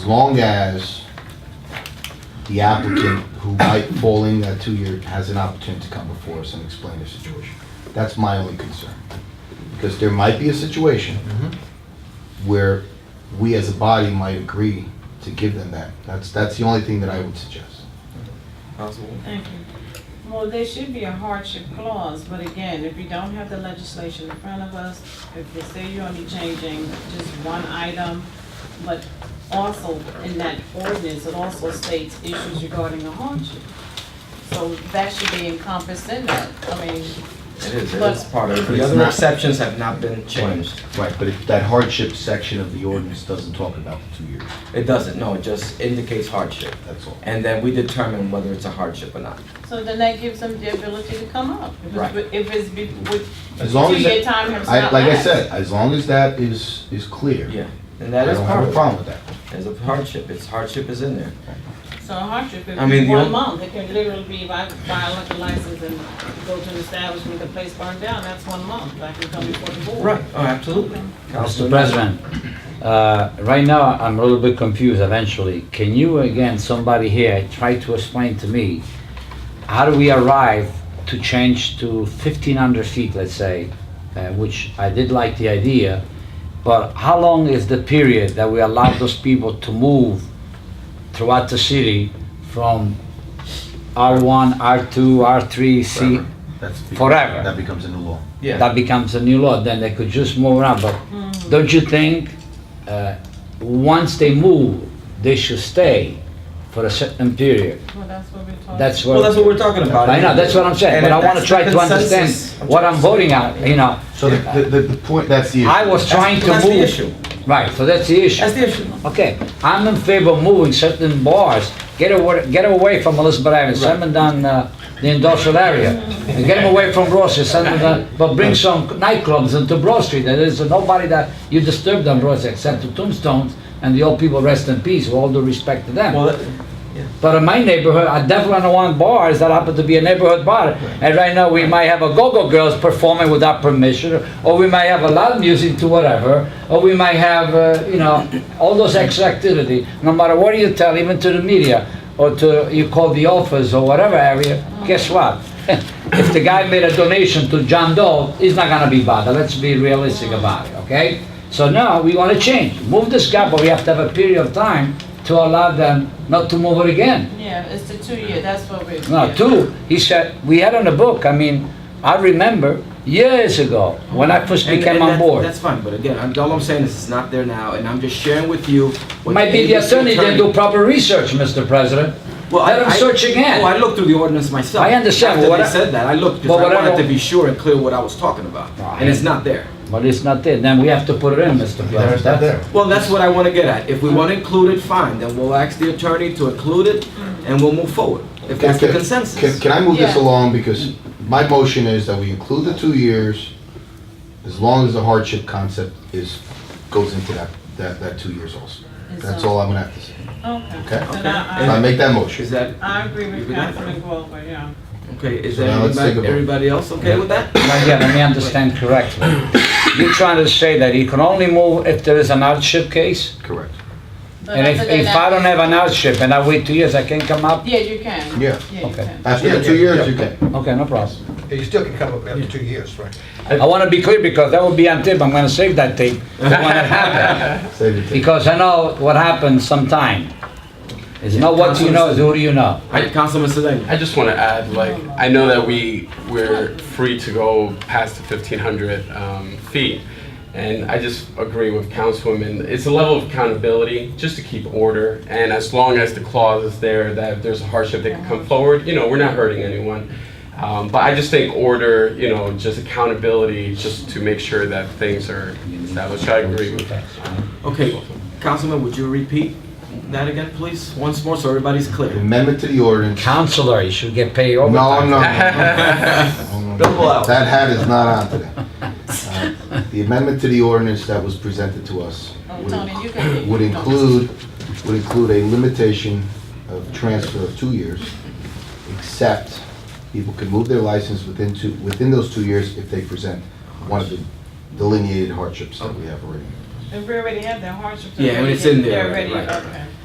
As long as the applicant who might fall in that two-year has an opportunity to come before us and explain their situation. That's my only concern. Because there might be a situation Mm-hmm. where we as a body might agree to give them that. That's, that's the only thing that I would suggest. Possible. Thank you. Well, there should be a hardship clause, but again, if you don't have the legislation in front of us, if they say you're only changing just one item, but also in that ordinance, it also states issues regarding a hardship. So that should be encompassed in that. I mean, It is, it But- is part of, But the it's other not- exceptions have not been changed. Right, but if that hardship section of the ordinance doesn't talk about the two years, It doesn't, no, it just indicates hardship. that's all. And then we determine whether it's a hardship or not. so then that gives them the ability to come up. If it's- Right. If it's, be- with, As long as, two-year that- time has I, not like I lapsed. said, as long as that is, is clear. Yeah, and I that is don't have a part of it. problem with that. There's a hardship, it's hardship is in there. So a hardship, if I mean, it's the one only- month, it can literally be if I buy a liquor license and go to an establishment, the place burned down, that's one month, I can come before the board. Right, oh, absolutely. Mr. Councilman- President, uh, right now, I'm a little bit confused eventually. Can you, again, somebody here, try to explain to me, how do we arrive to change to 1,500 feet, let's say, uh, which I did like the idea, but how long is the period that we allow those people to move throughout the city from R1, R2, R3, C? Forever. That's be- Forever. That becomes a new law. Yeah, that becomes a new law, then they could just move around, but don't you think, uh, once they move, they should stay for a certain period? Well, that's what we're talking. That's well, that's what what, we're talking about. I know, that's what I'm saying, And but if I wanna that's try the to understand consensus- what I'm voting on, you know? So the, the, the point, that's the issue. I was trying That's to that's the move, issue, right, so that's the issue. that's the issue. Okay, I'm in favor of moving certain bars, get away, get away from Elizabeth Avenue, send them down uh, the industrial area. And get them away from Broad Street, send them down, but bring some nightclubs into Broad Street, there is nobody that, you disturb them Broad Street except the tombstones and the old people rest in peace, with all due respect to them. Well, that- But in my neighborhood, I definitely don't want bars that happen to be a neighborhood bar. And right now, we might have a go-go girls performing without permission, or we might have a loud music to whatever, or we might have, uh, you know, all those extra activity. No matter what you tell, even to the media, or to, you call the office or whatever area, guess what? If the guy made a donation to John Doe, he's not gonna be bothered, let's be realistic about it, okay? So now, we wanna change, move this guy, but we have to have a period of time to allow them not to move it again. Yeah, it's the two-year, that's what we're. No, yeah. two, he said, we had on the book, I mean, I remember years ago, when I first and- became and on that- board. That's fine, but again, I'm- all I'm saying is it's not there now, and I'm just sharing with you. what Might be the ABC attorney didn't do proper research, Mr. President. Well, Let him search again. Oh, I looked through the ordinance myself. I understand, but After they what I- said that, I looked but because I what I wanted to don't- be sure and clear what I was talking about, Right. and it's not there. But it's not there, then we have to put it in, Mr. There's President. that there. Well, that's what I want to get at. If we want to include it, fine. Then we'll ask the attorney to include it, and we'll move forward. If that's the Can- Can, consensus. can I move this Yeah. along, because my motion is that we include the two years, as long as the hardship concept is, goes into that, that, that two years also. It's That's on. all I'm gonna have to say. Okay. Okay. If Then I I, I, make that motion, Is that I agree You with can have Councilman Glover, yeah. okay? Is So that now let's take a everybody, vote. everybody else okay with that? Now, yeah, let me understand correctly. You're trying to say that he can only move if there is an hardship case? correct. But And if, after if that- I don't have an hardship and I wait two years, I can come up? Yeah, you can. Yeah. Yeah, you Okay. can. After the two years, you can. Okay, no problem. Yeah, You still can come up after two years, right? I want to be clear because that will be on tape. I'm going to save that tape for when it happens. Save it. Because I know what happens sometime. It's not what you know, it's who do you know. All right, Councilman Sedan. I just want to add, like, I know that we, we're free to go past the 1,500 um, feet, and I just agree with Councilwoman, it's a level of accountability, just to keep order, and as long as the clause is there, that if there's a hardship, they can come forward, you know, we're not hurting anyone. Um, But I just think order, you know, just accountability, just to make sure that things are established, I agree with that. Okay, Councilman, would you repeat that again, please, once more, so everybody's clear? Amendment to the ordinance. Counselor, you should get paid No, no, overtime. no. no, no, Double no. out. That hat is not on today. Uh, The amendment to the ordinance that was presented to us Oh, would Tony, you can. would include, would include a limitation of transfer of two years, except people can move their license within two, within those two years if they present one of the delineated hardships that we have already. If we already have that hardship. Yeah, and already- it's in there they're already- already, right, okay.